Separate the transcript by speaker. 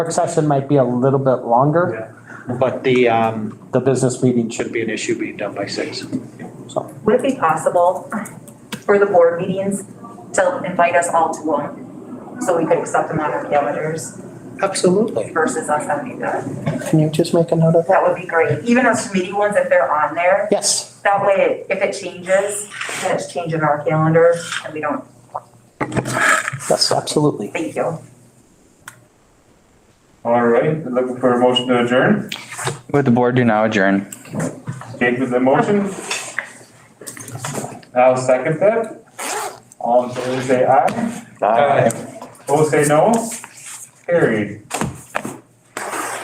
Speaker 1: Work session might be a little bit longer,
Speaker 2: But the, um,
Speaker 1: the business meeting should,
Speaker 2: shouldn't be an issue being done by six.
Speaker 3: Would it be possible for the board meetings to invite us all to one? So we could accept them on our calendars
Speaker 2: Absolutely.
Speaker 3: versus us having to,
Speaker 1: can you just make a note of that?
Speaker 3: that would be great. Even those committee ones, if they're on there,
Speaker 1: Yes,
Speaker 3: that way if it changes, then it's changing our calendar and we don't,
Speaker 1: yes, absolutely.
Speaker 3: thank you.
Speaker 4: All right, looking for a motion to adjourn.
Speaker 5: With the board do now adjourn.
Speaker 4: Jake with the motion. I'll second that. All in favor say aye. Opposed say no. Carried.